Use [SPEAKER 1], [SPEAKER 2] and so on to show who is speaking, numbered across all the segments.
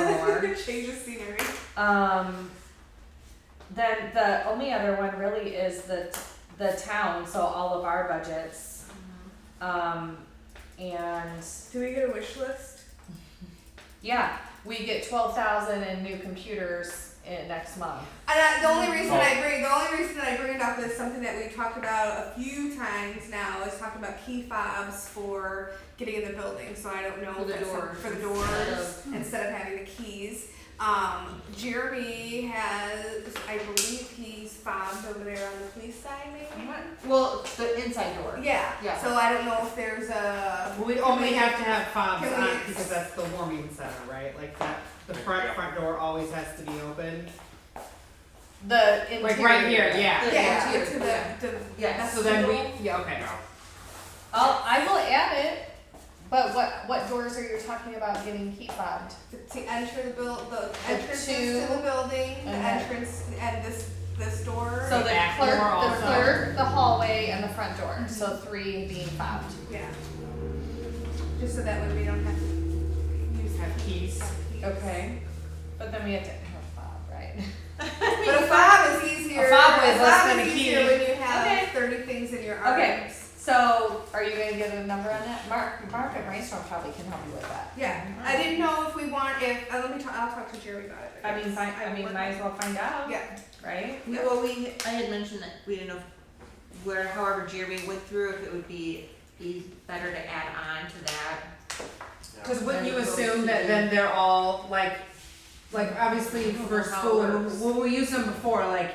[SPEAKER 1] Um, then the only other one really is the, the town, so all of our budgets. Um, and
[SPEAKER 2] Do we get a wish list?
[SPEAKER 1] yeah, we get twelve thousand in new computers in next month.
[SPEAKER 2] And I, uh, the only reason I bring the only reason I bring it up is something that we've talked about a few times now is talking about key fobs for getting in the building. So I don't know
[SPEAKER 3] For the
[SPEAKER 2] if it's some-
[SPEAKER 3] doors.
[SPEAKER 2] for the
[SPEAKER 3] Instead
[SPEAKER 2] doors
[SPEAKER 3] of-
[SPEAKER 2] instead of having the keys. Um, Jeremy has, I believe he's fobs over there on the police side, maybe.
[SPEAKER 3] Well, the inside door.
[SPEAKER 2] Yeah.
[SPEAKER 3] Yeah.
[SPEAKER 2] So I don't know if there's a
[SPEAKER 4] Well, we only
[SPEAKER 2] we-
[SPEAKER 4] have to have fobs
[SPEAKER 2] can we-
[SPEAKER 4] on because that's the warming center, right? Like that, the front, front door always has to be open.
[SPEAKER 1] The interior.
[SPEAKER 4] Like right here, yeah.
[SPEAKER 3] The
[SPEAKER 2] yeah,
[SPEAKER 3] interior,
[SPEAKER 2] to the,
[SPEAKER 3] yeah.
[SPEAKER 2] the
[SPEAKER 1] Yeah,
[SPEAKER 4] So then we, yeah, okay.
[SPEAKER 1] I'll, I will add it, but what, what doors are you talking about getting key fobbed?
[SPEAKER 2] to enter the buil- the
[SPEAKER 1] The
[SPEAKER 2] entrances
[SPEAKER 1] two.
[SPEAKER 2] to the building, the
[SPEAKER 1] Uh-huh.
[SPEAKER 2] entrance and this this door.
[SPEAKER 1] So the
[SPEAKER 4] back
[SPEAKER 1] clerk,
[SPEAKER 4] door
[SPEAKER 1] the
[SPEAKER 4] also.
[SPEAKER 1] clerk, the hallway, and the front door, so three being fobbed.
[SPEAKER 2] yeah. Just so that way we don't have to use
[SPEAKER 4] Have keys.
[SPEAKER 2] keys.
[SPEAKER 1] Okay. But then we have to have a fob, right?
[SPEAKER 2] But a fob is easier.
[SPEAKER 4] A fob is less than
[SPEAKER 2] is
[SPEAKER 4] a key.
[SPEAKER 2] easier when you have
[SPEAKER 1] Okay.
[SPEAKER 2] thirty things in your arms.
[SPEAKER 1] Okay. So, are you gonna get a number on that? Mark, Mark and Brainstorm probably can help you with that.
[SPEAKER 2] Yeah, I didn't know if we want if uh, let me talk. I'll talk to Jerry about it.
[SPEAKER 1] find,
[SPEAKER 2] work-
[SPEAKER 1] as well find out,
[SPEAKER 2] Yeah.
[SPEAKER 1] right?
[SPEAKER 3] We, well, we, I had mentioned that we didn't know where, however Jeremy went through, if it would be, be better to add on to that.
[SPEAKER 4] Cause wouldn't you assume that then they're all like, like obviously for
[SPEAKER 3] How it
[SPEAKER 4] school, when
[SPEAKER 3] works.
[SPEAKER 4] we- when we use them before, like,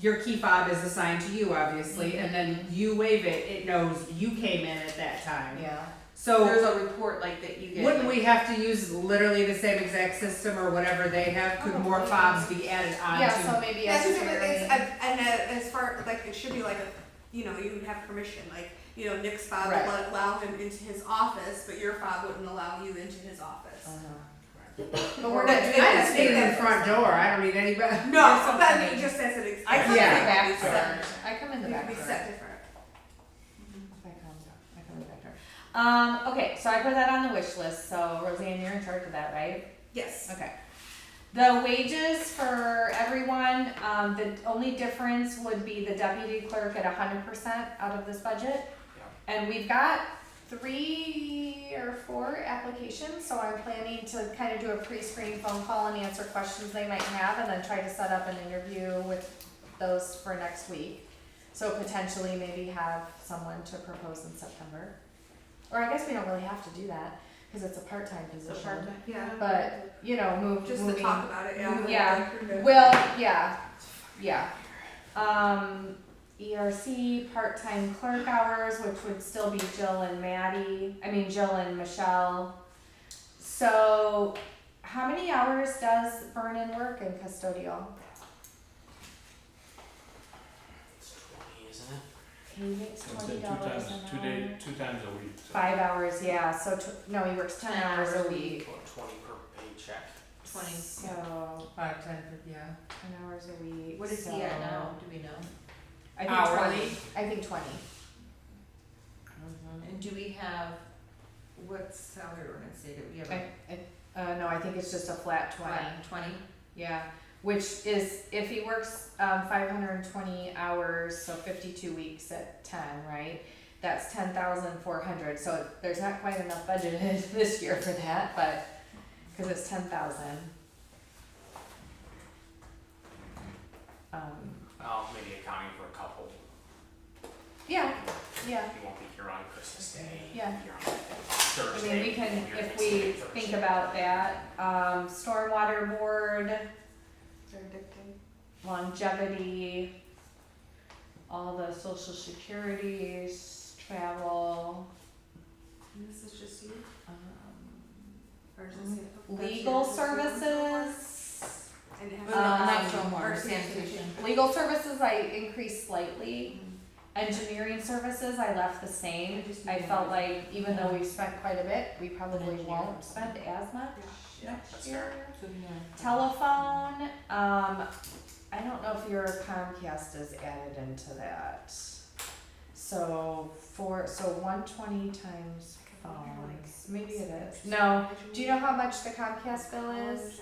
[SPEAKER 4] your key fob is assigned to you, obviously, and then you wave it, it knows you came in at that time.
[SPEAKER 1] Yeah.
[SPEAKER 4] So.
[SPEAKER 3] There's a report like that you get.
[SPEAKER 4] Oh. Wouldn't
[SPEAKER 3] like-
[SPEAKER 4] we have to use literally the same exact system or whatever they have? Could more
[SPEAKER 1] Probably.
[SPEAKER 4] fobs be added on
[SPEAKER 1] Yeah,
[SPEAKER 4] to?
[SPEAKER 1] so maybe I
[SPEAKER 2] That's
[SPEAKER 1] should
[SPEAKER 2] just what it's,
[SPEAKER 1] figure
[SPEAKER 2] and and, uh, as far, like, it should be like, a you know, you would have permission, like, you know, Nick's fob would
[SPEAKER 1] Right.
[SPEAKER 2] let- allow him into his office, but your fob wouldn't allow you into his office.
[SPEAKER 1] Oh. Uh-huh. But we're not doing
[SPEAKER 4] I
[SPEAKER 2] that.
[SPEAKER 4] just need it in the front door. I don't need anybody.
[SPEAKER 1] There's
[SPEAKER 2] No, but I
[SPEAKER 1] something-
[SPEAKER 2] mean, just as an example.
[SPEAKER 1] I come in
[SPEAKER 4] Yeah.
[SPEAKER 1] the back door. I come in the
[SPEAKER 2] We
[SPEAKER 1] back
[SPEAKER 2] could be
[SPEAKER 1] door.
[SPEAKER 2] set different.
[SPEAKER 1] I come, I come in the back door. Um, okay, so I put that on the wish list, so Roseanne, you're in charge of that, right?
[SPEAKER 2] Yes,
[SPEAKER 1] Okay. The wages for everyone, um, the only difference would be the deputy clerk at hundred percent out of this budget. And we've got three or four applications, so I'm planning to kind of do a pre-screen phone call and answer questions they might have, and then try to set up an interview with those for next week. So potentially maybe have someone to propose in September. Or I guess we don't really have to do that, cause it's a part-time position.
[SPEAKER 2] yeah,
[SPEAKER 1] But, you know, move,
[SPEAKER 2] just to
[SPEAKER 1] moving.
[SPEAKER 2] talk about it, yeah.
[SPEAKER 1] Yeah.
[SPEAKER 2] We're good.
[SPEAKER 1] Well, yeah, yeah. Um, ERC, part-time clerk hours, which would still be Jill and Maddie, I mean Jill and Michelle. So, how many hours does Vernon work in custodial?
[SPEAKER 5] It's twenty, isn't it?
[SPEAKER 1] He makes
[SPEAKER 6] I'd say
[SPEAKER 1] twenty
[SPEAKER 6] two
[SPEAKER 1] dollars
[SPEAKER 6] times,
[SPEAKER 1] an hour.
[SPEAKER 6] two day, two times a week, so.
[SPEAKER 1] Five hours, yeah, so tw- no, he works ten hours a week,
[SPEAKER 5] Or twenty per paycheck.
[SPEAKER 3] Twenty.
[SPEAKER 1] so,
[SPEAKER 4] Five, ten, yeah.
[SPEAKER 1] ten hours a week,
[SPEAKER 3] What is
[SPEAKER 1] so-
[SPEAKER 3] he at now? Do we know?
[SPEAKER 1] I think
[SPEAKER 4] Hourly.
[SPEAKER 1] twenty, I think twenty.
[SPEAKER 3] And do we have, what salary ordinance say that we have
[SPEAKER 1] I,
[SPEAKER 3] a
[SPEAKER 1] I, uh, no, I think it's just a flat twenty.
[SPEAKER 3] flat twenty?
[SPEAKER 1] Yeah, which is if he works um, 520 hours, so 52 weeks at 10, right? That's 10,400. So there's not quite enough budgeted this year for that, but because it's 10,000. Um,
[SPEAKER 5] Well, maybe accounting for a couple.
[SPEAKER 1] yeah, yeah.
[SPEAKER 5] You won't be here on Christmas Day.
[SPEAKER 1] Yeah.
[SPEAKER 5] You're on
[SPEAKER 1] I
[SPEAKER 5] Thursday.
[SPEAKER 1] mean, we can,
[SPEAKER 5] you're
[SPEAKER 1] if we
[SPEAKER 5] Thanksgiving
[SPEAKER 1] think
[SPEAKER 5] Thursday.
[SPEAKER 1] about that, um, stormwater board,
[SPEAKER 2] They're addicting.
[SPEAKER 1] longevity, all the social securities, travel,
[SPEAKER 2] And This is just you,
[SPEAKER 1] um,
[SPEAKER 2] or is this?
[SPEAKER 1] legal
[SPEAKER 2] that's your-
[SPEAKER 1] services.
[SPEAKER 2] And it
[SPEAKER 3] Well,
[SPEAKER 2] has-
[SPEAKER 3] no, not
[SPEAKER 1] Um,
[SPEAKER 3] stormwater,
[SPEAKER 2] or
[SPEAKER 3] sanitation.
[SPEAKER 1] Legal services I increased slightly. Engineering services I left the same. I felt like even though we've spent quite a bit, we probably
[SPEAKER 3] Engineering.
[SPEAKER 1] won't spend as much
[SPEAKER 5] Yeah,
[SPEAKER 1] next
[SPEAKER 5] that's
[SPEAKER 1] year.
[SPEAKER 5] fair.
[SPEAKER 3] So, yeah.
[SPEAKER 1] Telephone, um, I don't know if your Comcast is added into that. So four, so one twenty times phones, maybe it is. No, do you know how much the Comcast bill is?